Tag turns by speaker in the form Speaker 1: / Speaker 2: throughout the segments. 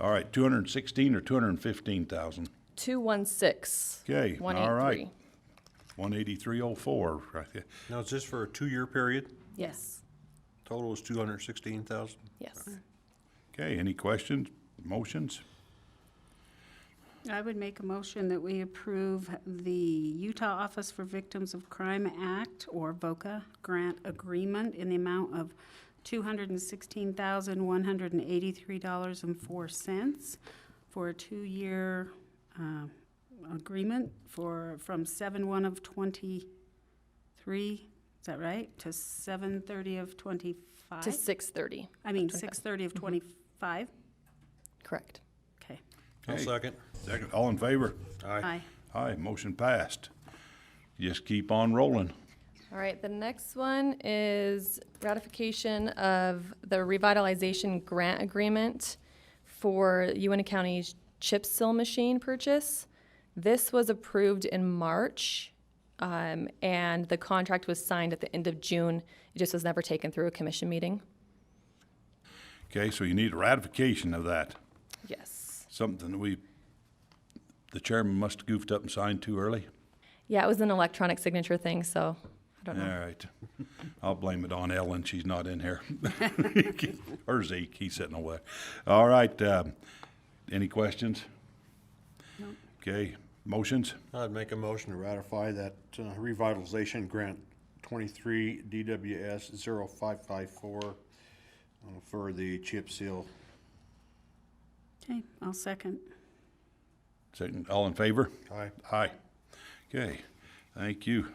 Speaker 1: All right, two hundred and sixteen or two hundred and fifteen thousand?
Speaker 2: 216.
Speaker 1: Okay, all
Speaker 2: 183.
Speaker 1: right. One eighty-three oh four, right there.
Speaker 3: Now, is this for a two-year period?
Speaker 2: Yes,
Speaker 3: Total is two hundred sixteen thousand?
Speaker 2: yes.
Speaker 1: Okay, any questions, motions?
Speaker 4: I would make a motion that we approve the Utah Office for Victims of Crime Act, or VOCA, grant agreement in the amount of $216,183.04 for a two-year uh, agreement for, from 7/1 of '23, is that right? To 7/30 of '25?
Speaker 2: To 630,
Speaker 4: I mean, 6/30 of '25?
Speaker 2: correct.
Speaker 4: Okay.
Speaker 3: I'll
Speaker 1: Okay.
Speaker 3: second.
Speaker 1: Second, all in favor?
Speaker 4: Aye.
Speaker 1: Aye, motion passed. Just keep on rolling.
Speaker 2: All right, the next one is ratification of the revitalization grant agreement for UNT County's chip seal machine purchase. This was approved in March, um, and the contract was signed at the end of June. It just was never taken through a commission meeting.
Speaker 1: Okay, so you need ratification of that,
Speaker 2: Yes.
Speaker 1: something that we, the chairman must have goofed up and signed too early.
Speaker 2: Yeah, it was an electronic signature thing, so I don't
Speaker 1: All
Speaker 2: know.
Speaker 1: right. I'll blame it on Ellen, she's not in here. Or Zeke, he's sitting over there. All right, um, any questions? Okay, motions?
Speaker 3: I'd make a motion to ratify that uh, revitalization grant twenty-three DWS 0554 uh, for the chip seal.
Speaker 4: Okay, I'll second.
Speaker 1: Second, all in favor?
Speaker 3: Aye.
Speaker 1: Aye. Okay, thank you.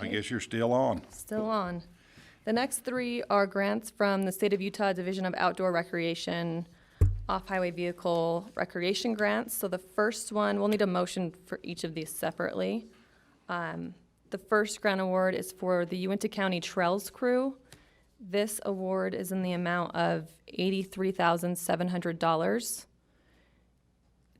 Speaker 1: I guess you're still on.
Speaker 2: Still on. The next three are grants from the State of Utah Division of Outdoor Recreation, Off-Highway Vehicle Recreation Grants. So the first one, we'll need a motion for each of these separately. Um, The first grant award is for the Uinta County Trails Crew. This award is in the amount of eighty-three thousand seven hundred dollars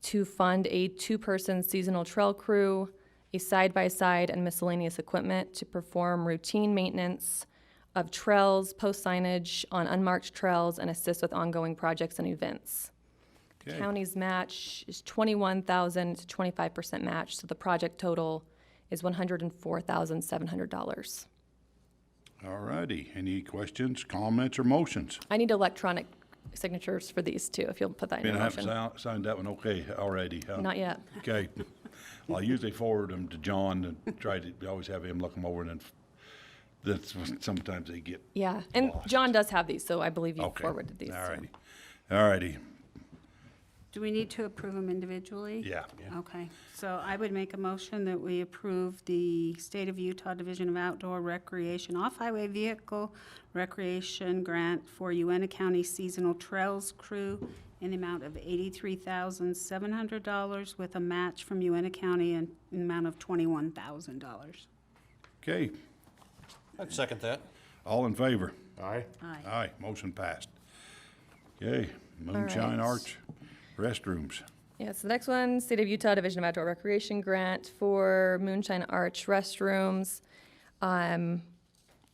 Speaker 2: to fund a two-person seasonal trail crew, a side-by-side and miscellaneous equipment to perform routine maintenance of trails, post signage on unmarked trails, and assist with ongoing projects and events. The
Speaker 1: Okay.
Speaker 2: county's match is twenty-one thousand to twenty-five percent match, so the project total is one hundred and four thousand seven hundred dollars.
Speaker 1: All righty, any questions, comments, or motions?
Speaker 2: I need electronic signatures for these too, if you'll put that in
Speaker 1: And
Speaker 2: your
Speaker 1: I haven't
Speaker 2: motion.
Speaker 1: sou- signed that one okay already, huh?
Speaker 2: Not yet.
Speaker 1: Okay. I usually forward them to John and try to, we always have him look them over and then f- that's, when sometimes they get,
Speaker 2: Yeah, and John does have these, so I believe you
Speaker 1: okay.
Speaker 2: forwarded these.
Speaker 1: All
Speaker 2: so.
Speaker 1: righty, all righty,
Speaker 4: Do we need to approve them individually?
Speaker 1: yeah.
Speaker 4: Okay, so I would make a motion that we approve the State of Utah Division of Outdoor Recreation Off-Highway Vehicle Recreation Grant for Uena County Seasonal Trails Crew in the amount of eighty-three thousand seven hundred dollars with a match from Uena County in an amount of twenty-one thousand dollars.
Speaker 1: Okay,
Speaker 3: I'd second that.
Speaker 1: all in favor?
Speaker 3: Aye.
Speaker 4: Aye.
Speaker 1: Aye, motion passed. Okay, Moonshine
Speaker 2: right.
Speaker 1: Arch restrooms.
Speaker 2: Yeah, so the next one, State of Utah Division of Outdoor Recreation Grant for Moonshine Arch restrooms. Um,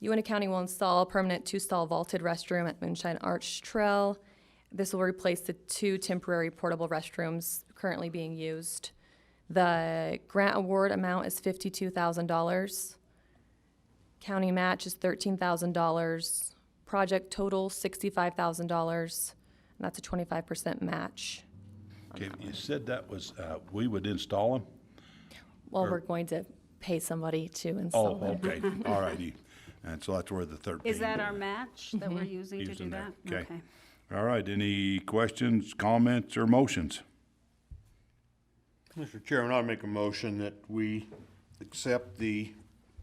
Speaker 2: Uinta County will install a permanent two-stall vaulted restroom at Moonshine Arch Trail. This will replace the two temporary portable restrooms currently being used. The grant award amount is fifty-two thousand dollars. County match is thirteen thousand dollars. Project total sixty-five thousand dollars, and that's a twenty-five percent match.
Speaker 1: Okay, you said that was, uh, we would install them?
Speaker 2: Well, we're going to pay somebody to
Speaker 1: Oh,
Speaker 2: install it.
Speaker 1: okay, all righty. And so that's where the thirteen.
Speaker 4: Is that our match that we're using to
Speaker 1: used
Speaker 4: do
Speaker 1: in there.
Speaker 4: that?
Speaker 1: Mm-hmm. Okay. All right, any questions, comments, or motions?
Speaker 3: Mr. Chairman, I'd make a motion that we accept the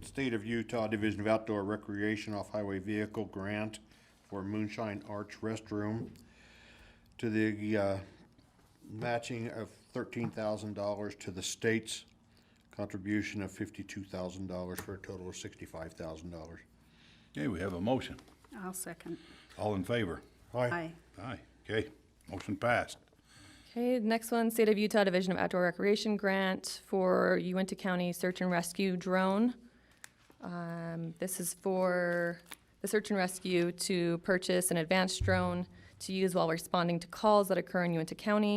Speaker 3: State of Utah Division of Outdoor Recreation Off-Highway Vehicle Grant for Moonshine Arch Restroom to the, uh, matching of thirteen thousand dollars to the state's contribution of fifty-two thousand dollars for a total of sixty-five thousand dollars.
Speaker 1: Okay, we have a motion.
Speaker 4: I'll second.
Speaker 1: All in favor?
Speaker 4: Aye.
Speaker 1: Aye. Okay, motion passed.
Speaker 2: Okay, next one, State of Utah Division of Outdoor Recreation Grant for Uinta County Search and Rescue Drone. Um, This is for the search and rescue to purchase an advanced drone to use while responding to calls that occur in Uinta County.